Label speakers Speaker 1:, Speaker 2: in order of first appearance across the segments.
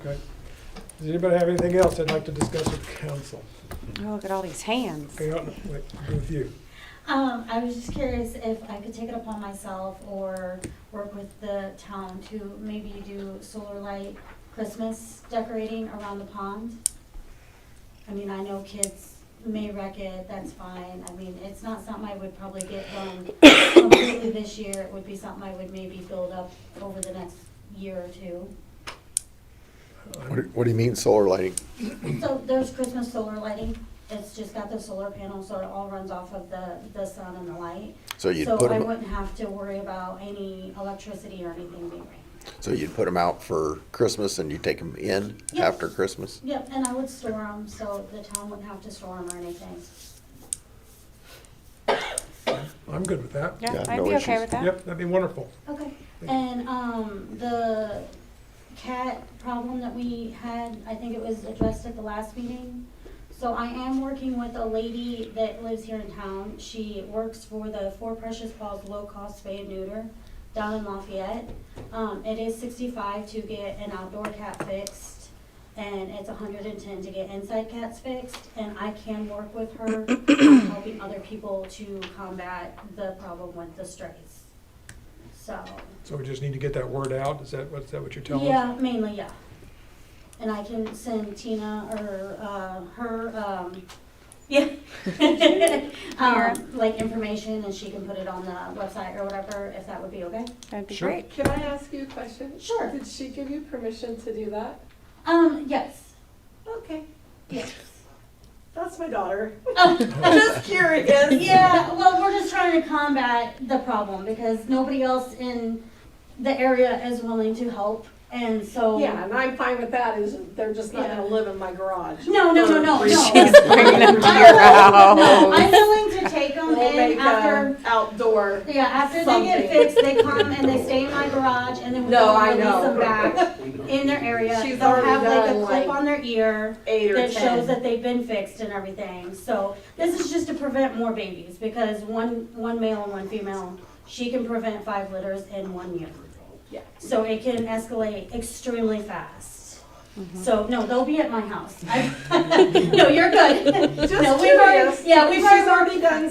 Speaker 1: Okay. Does anybody have anything else they'd like to discuss with council?
Speaker 2: Oh, look at all these hands.
Speaker 1: Hang on, wait, go with you.
Speaker 3: Um, I was just curious if I could take it upon myself or work with the town to maybe do solar light Christmas decorating around the pond. I mean, I know kids may wreck it, that's fine. I mean, it's not something I would probably get done completely this year. It would be something I would maybe build up over the next year or two.
Speaker 4: What do- What do you mean solar lighting?
Speaker 3: So there's Christmas solar lighting. It's just got the solar panel, so it all runs off of the, the sun and the light.
Speaker 4: So you'd
Speaker 3: So
Speaker 4: put
Speaker 3: I
Speaker 4: them,
Speaker 3: wouldn't have to worry about any electricity or anything being ran.
Speaker 4: so you'd put 'em out for Christmas and you take them in
Speaker 3: Yeah.
Speaker 4: after Christmas?
Speaker 3: Yep, and I would store them, so the town wouldn't have to store them or anything.
Speaker 1: I'm good with that.
Speaker 2: Yeah,
Speaker 4: Yeah,
Speaker 2: I'd
Speaker 4: no
Speaker 2: be okay
Speaker 4: issues.
Speaker 2: with that.
Speaker 1: Yep, that'd be wonderful.
Speaker 3: Okay, and, um, the cat problem that we had, I think it was addressed at the last meeting. So I am working with a lady that lives here in town. She works for the Four Precious Paws Low Cost Spay and Neuter down in Lafayette. Um, it is sixty-five to get an outdoor cat fixed, and it's hundred and ten to get inside cats fixed. And I can work with her, on helping other people to combat the problem with the strays, so.
Speaker 1: So we just need to get that word out. Is that, what, is that what you're telling us?
Speaker 3: Yeah, mainly, yeah. And I can send Tina or, uh, her, um, yeah. Um, like information and she can put it on the website or whatever, if that would be okay.
Speaker 2: That'd be
Speaker 1: Sure.
Speaker 2: great.
Speaker 5: Can I ask you a question?
Speaker 3: Sure.
Speaker 5: Did she give you permission to do that?
Speaker 3: Um, yes,
Speaker 5: Okay,
Speaker 3: yes.
Speaker 5: that's my daughter.
Speaker 3: Oh,
Speaker 5: Just curious.
Speaker 3: Yeah, well, we're just trying to combat the problem because nobody else in the area is willing to help. And so.
Speaker 5: Yeah, and I'm fine with that, is they're just not gonna
Speaker 3: Yeah.
Speaker 5: live in my garage.
Speaker 3: No, no, no, no, no.
Speaker 2: She's bringing Oh them to your
Speaker 3: No,
Speaker 2: house.
Speaker 3: I'm willing to take them
Speaker 5: We'll make
Speaker 3: in after
Speaker 5: a outdoor.
Speaker 3: Yeah, after they get
Speaker 5: Something.
Speaker 3: fixed, they come and they stay in my garage and then we
Speaker 5: No,
Speaker 3: go
Speaker 5: I
Speaker 3: release
Speaker 5: know.
Speaker 3: them back in their area.
Speaker 5: She's
Speaker 3: They'll
Speaker 5: already
Speaker 3: have like a
Speaker 5: done,
Speaker 3: clip
Speaker 5: like,
Speaker 3: on their ear
Speaker 5: Eight or
Speaker 3: that shows
Speaker 5: ten.
Speaker 3: that they've been fixed and everything. So this is just to prevent more babies because one, one male and one female, she can prevent five litters in one year.
Speaker 5: Yeah.
Speaker 3: So it can escalate extremely fast. So, no, they'll be at my house. I- No, you're good.
Speaker 5: Just
Speaker 3: No, we've already-
Speaker 5: curious.
Speaker 3: yeah, we've
Speaker 5: She's
Speaker 3: already-
Speaker 5: already done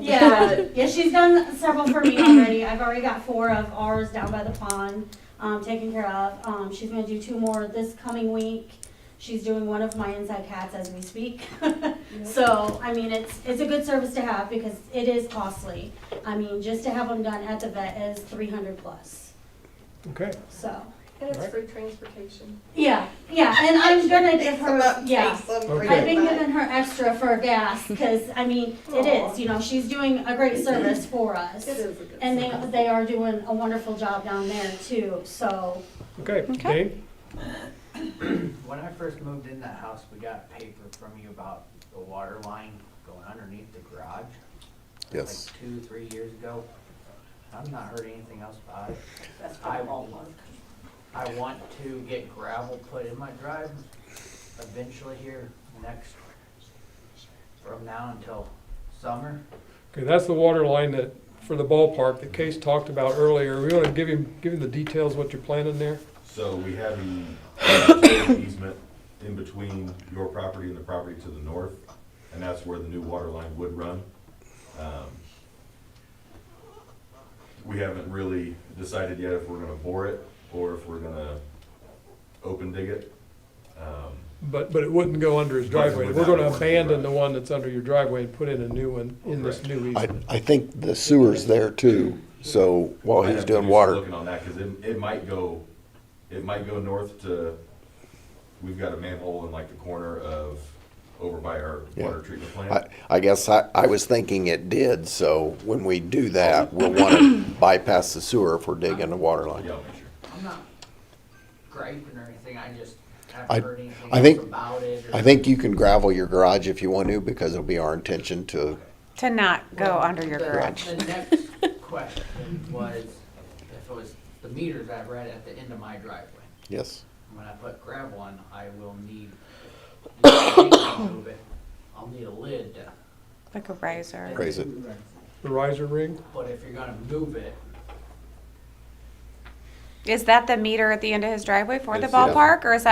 Speaker 3: Yeah, yeah, she's done several for me already. I've already got four of ours down by the pond, um, taken care of. Um, she's gonna do two more this coming week. She's doing one of my inside cats as we speak. So, I mean, it's, it's a good service to have because it is costly. I mean, just to have them done at the vet is three hundred plus,
Speaker 1: Okay.
Speaker 3: so.
Speaker 5: And it's
Speaker 1: Right.
Speaker 5: free transportation.
Speaker 3: Yeah, yeah, and I'm gonna give her, yeah.
Speaker 1: Okay.
Speaker 3: I've been giving her extra for gas, because, I mean, it is, you know, she's doing a great service for us.
Speaker 5: It is a good.
Speaker 3: And they, they are doing a wonderful job down there too, so,
Speaker 1: Okay,
Speaker 2: Okay.
Speaker 1: Dave?
Speaker 6: When I first moved in that house, we got paper from you about the water line going underneath the garage.
Speaker 4: Yes.
Speaker 6: Like two, three years ago. I've not heard anything else about it.
Speaker 5: That's
Speaker 6: I
Speaker 5: all
Speaker 6: want, I want to get gravel put in my drive eventually here next, from now until summer.
Speaker 1: Okay, that's the water line that, for the ballpark that Case talked about earlier. We want to give him, give him the details what you're planning there?
Speaker 7: So we have the easement in between your property and the property to the north, and that's where the new water line would run. Um, We haven't really decided yet if we're gonna bore it or if we're gonna open dig it. Um,
Speaker 1: But, but it wouldn't go under his driveway. We're going to abandon the one that's under your driveway and put in a new one in this new
Speaker 4: I,
Speaker 1: easement.
Speaker 4: I think the sewer's there too, so while
Speaker 7: I
Speaker 4: he's
Speaker 7: have to
Speaker 4: doing
Speaker 7: do some
Speaker 4: water,
Speaker 7: Looking on that, cause it, it might go, it might go north to, we've got a manhole in like the corner of, over by our
Speaker 4: Yeah.
Speaker 7: water treatment plant.
Speaker 4: I, I guess I, I was thinking it did, so when we do that, we'll want to bypass the sewer if we're digging a water
Speaker 7: Yeah,
Speaker 4: line.
Speaker 7: I'll make sure.
Speaker 6: I'm not griping or anything, I just
Speaker 4: I-
Speaker 6: haven't heard anything
Speaker 4: I think-
Speaker 6: else about it. or-
Speaker 4: I think you can gravel your garage if you want to, because it'll be our intention to,
Speaker 2: To not go
Speaker 6: Well,
Speaker 2: under your
Speaker 6: the-
Speaker 2: garage.
Speaker 6: The next question was, if it was the meters I read at the end of my driveway.
Speaker 4: yes.
Speaker 6: When I put gravel on, I will need, move it, I'll need a lid to.
Speaker 2: Like a riser.
Speaker 4: Raise it.
Speaker 1: The riser ring?
Speaker 6: But if you're gonna move it,
Speaker 2: Is that the meter at the end of his driveway for the
Speaker 7: It's, yeah.
Speaker 2: ballpark or is that